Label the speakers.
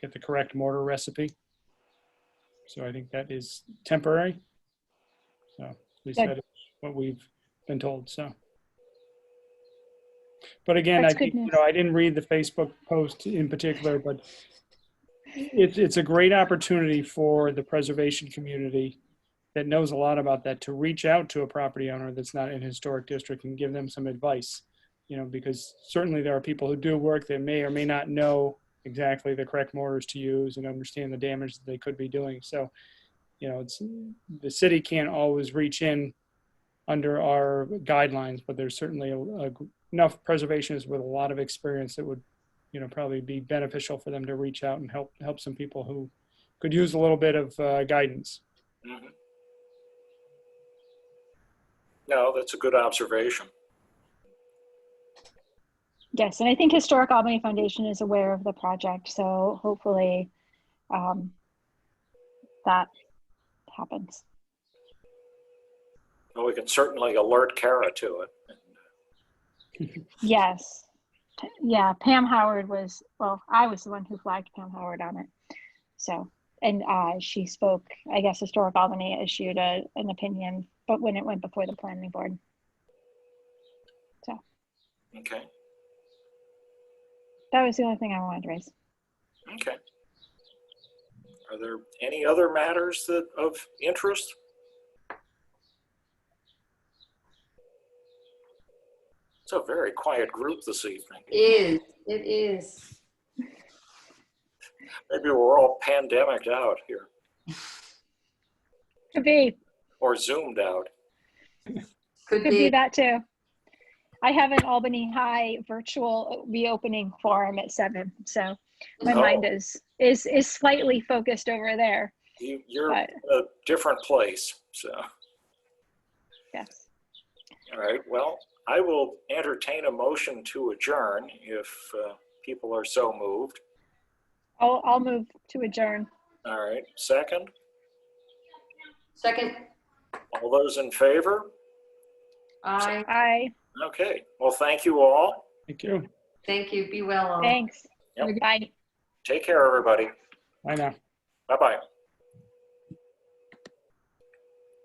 Speaker 1: get the correct mortar recipe. So I think that is temporary. So at least
Speaker 2: Good.
Speaker 1: that is what we've been told, so. But again, I,
Speaker 2: That's
Speaker 1: think,
Speaker 2: good
Speaker 1: you know, I didn't read the Facebook post in particular, but it's, it's a great opportunity for the preservation community that knows a lot about that to reach out to a property owner that's not in a historic district and give them some advice. You know, because certainly there are people who do work that may or may not know exactly the correct mortars to use and understand the damage that they could be doing. So, you know, it's the city can't always reach in under our guidelines, but there's certainly a, a, enough preservationists with a lot of experience that would, you know, probably be beneficial for them to reach out and help help some people who could use a little bit of uh, guidance.
Speaker 3: Mhm. No, that's a good observation.
Speaker 2: Yes, and I think Historic Albany Foundation is aware of the project, so hopefully um, that happens.
Speaker 3: Well, we can certainly alert Kara to it.
Speaker 2: Yes. P- Yeah, Pam Howard was, well, I was the one who flagged Pam Howard on it. So, and uh, she spoke, I guess Historic Albany issued a, an opinion, but when it went before the planning board.
Speaker 3: Okay,
Speaker 2: That was the only thing I wanted to raise.
Speaker 3: okay. Are there any other matters that of interest? It's a very quiet group this evening.
Speaker 4: Is, it is.
Speaker 3: Maybe we're all pandemicked out here
Speaker 2: Could be,
Speaker 3: or zoomed out.
Speaker 4: Could
Speaker 2: could be
Speaker 4: be.
Speaker 2: that too. I have an Albany High virtual reopening forum at seven, so my
Speaker 3: Oh.
Speaker 2: mind is, is, is slightly focused over there.
Speaker 3: You, you're
Speaker 2: But,
Speaker 3: in a different place, so.
Speaker 2: yes,
Speaker 3: All right, well, I will entertain a motion to adjourn if uh, people are so moved.
Speaker 2: I'll, I'll move to adjourn.
Speaker 3: All right, second,
Speaker 4: Second,
Speaker 3: all those in favor?
Speaker 4: I
Speaker 2: Aye.
Speaker 3: Okay, well, thank you all.
Speaker 1: Thank you.
Speaker 4: thank you. Be well. all.
Speaker 2: Thanks.
Speaker 3: Uh, Yep.
Speaker 2: Bye.
Speaker 3: Take care, everybody.
Speaker 1: Bye now.
Speaker 3: Bye-bye.